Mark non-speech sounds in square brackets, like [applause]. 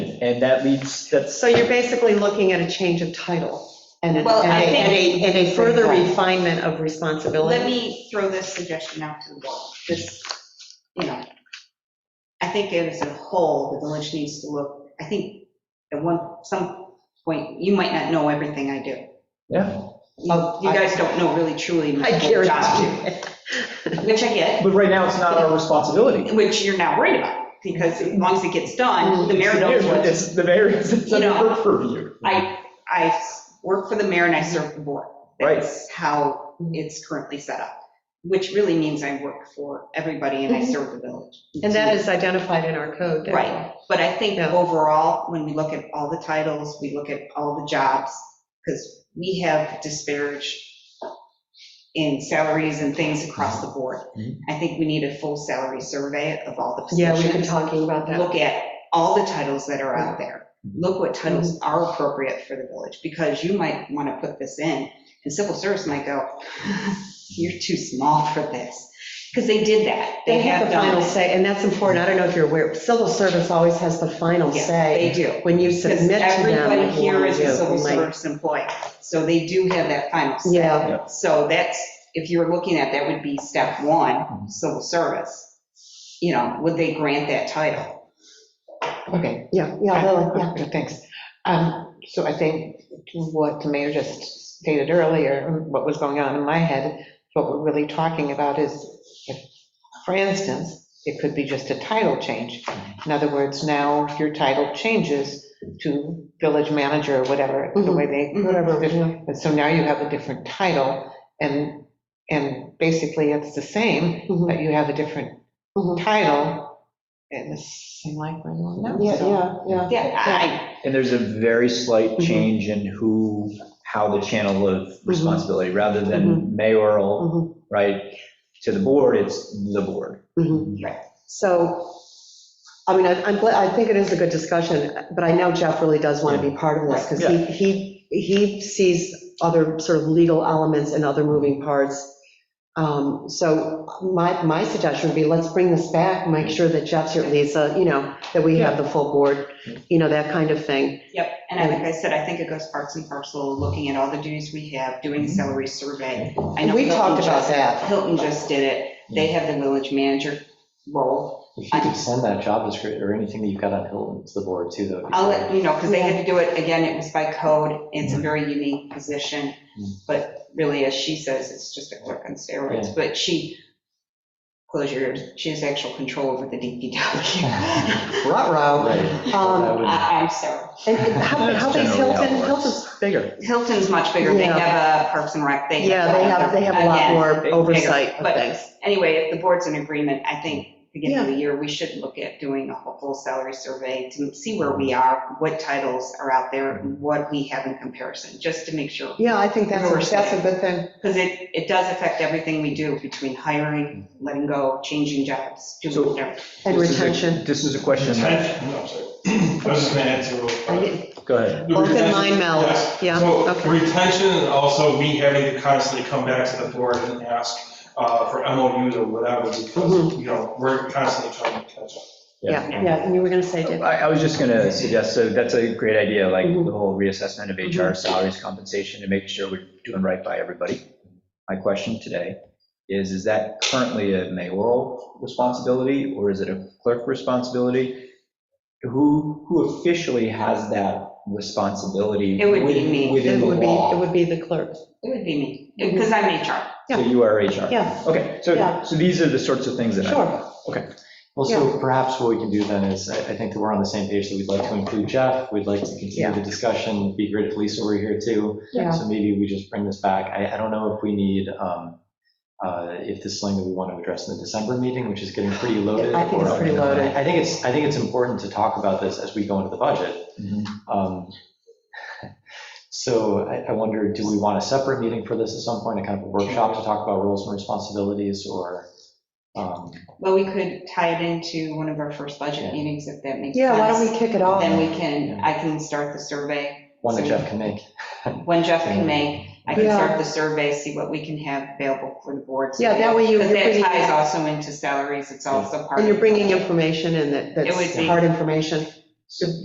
and that leads, that's, So you're basically looking at a change of title and a, Well, and I a- think- and a, and a further Right. refinement of Let responsibility. me throw this suggestion out to the board, just, you know, I think as a whole, the village needs to look, I think at one, some point, you might not know everything I do. yeah. You you guys don't know really truly my I whole job, guarantee it. which I get, But right now, it's not our responsibility. which you're not worried about, because as long as it gets Mm-hmm. done, the mayor knows what It's the mayor, it's You under know, her purview. I, I work for the mayor and I serve the board. Right. That's how it's currently set up, which really means I work for everybody and I serve the village. Mm-hmm. And that is identified in our code. that- Right, but I think Yeah. overall, when we look at all the titles, we look at all the jobs, because we have disparage in salaries and things across the board. Mhm. I think we need a full salary survey of all the Mm-hmm. Yeah, positions we've been talking about that. Mm-hmm. look at all the titles that are out there. Look what titles are appropriate for the village, because you might want to put this in, and civil service might go, [laughs] you're too small for this, because they did that. They have the done final it. say, and that's important. I don't know if you're aware, civil service always has the final Yeah, say They do. when you Because submit to them. everybody what you here wanna is do. a civil We might- service employee, so they do have that final say. Yeah, So that's, if you're looking at, that would be step one, civil service. You know, would they grant that title? Okay, yeah, yeah, yeah, Lily, yeah. well, yeah, thanks. Um, So I think what the mayor just stated earlier, what was going on in my head, what we're really talking about is, if- for instance, it could be just a title change. In other words, now if your title changes to village manager or whatever, Mm-hmm. the way they Whatever, yeah. And so now you have a different title, and, and basically it's the same, Mhm, but you have a different mhm. title, and it's the same like we're doing now. Yeah, so- yeah, yeah. Yeah, I, And there's a very slight Mm-hmm. change in who, how the channel of responsibility, rather Mm-hmm. than Mm-hmm. mayoral, right, to the board, it's the board. Mm-hmm. Mhm. So, I mean, I- I'm glad, I think it is a good discussion, but I know Jeff really does want to be part of this, because he, he, he sees other sort of legal elements and other moving parts. Um, So my, my suggestion would be, let's bring this back, make sure that Jeff's here, Lisa, you know, that we have the full board, you know, that kind of thing. yep, and I- like I said, I think it goes parts and parcel, looking at all the duties we have, doing the salary survey. I know We Hilton talked about just- that. Hilton just did it, they have the village manager role. If you could send that job description or anything that you've got on Hilton to the board too, though. I'll let you know, because they had to do it, again, it was by code, it's a very unique position, but really, as she says, it's just a clerk on steroids, but she, close your ears, she has actual control over the DPW. Ruh-roh. Um, I- Uh, I'm sorry. And and how how [laughs] big's That's generally how it Hilton? works. Hilton's bigger. Hilton's much bigger, they Yeah. have a Parks and Rec, they. Yeah, they have, they have a lot Again, more bigger, oversight of but- things. Anyway, if the board's in agreement, I think beginning of the year, we should look at doing a whole full salary survey to see where we are, what titles are out there, and what we have in comparison, just to make sure. Yeah, I think that's, a- Oversight. that's a good thing. Because it, it does affect everything we do between hiring, letting go, changing jobs, So- doing whatever. And This is a- retention. This is a question, that- Retention, no, I'm sorry. I was just gonna answer real quick. go ahead. The Both in retention- mind meld, yes. yeah, So okay. retention and also we having to constantly come back to the board and ask uh, for MOUs or whatever because, Mhm. you know, we're constantly trying to catch up. Yeah, yeah, and you were gonna say, Dave. I, I was just gonna suggest, so that's a great idea, like Mm-hmm. the whole reassessment of HR salaries compensation to make sure we're doing right by everybody. My question today is, is that currently a mayoral responsibility or is it a clerk responsibility? Who, who officially has that responsibility? It would be within- me. Within It the would be, it law? would be the clerk. It would be me, because I'm HR. So you are HR? Yeah. Okay, so, Yeah. so these are the sorts of things that I. Sure. Well, so perhaps what we can do then is, I, I think that we're on the same page, that we'd like to include Jeff, we'd like to Yeah. continue the discussion, It'd be great if Lisa were here too. Yeah. So maybe we just bring this back. I, I don't know if we need, um, uh, if this is something that we want to address in the December meeting, which is getting pretty loaded. I think it's or- pretty loaded. I think it's, I think it's important to talk about this as we go into the budget. Mhm. Um, [laughs] So I I wonder, do we want a separate meeting for this at some point, a kind of a workshop to talk about roles and responsibilities or? um, Well, we could tie it into one of our first budget Yeah. meetings if that makes sense. Yeah, why don't we kick it off? Then we can, I can start the survey. One that Jeff can make. When Jeff can make, I can Yeah. start the survey, see what we can have available for the board. Yeah, that way you- Because you're that bringing- ties also into salaries, it's also part. And you're of- bringing information in that, It would that's be- hard information.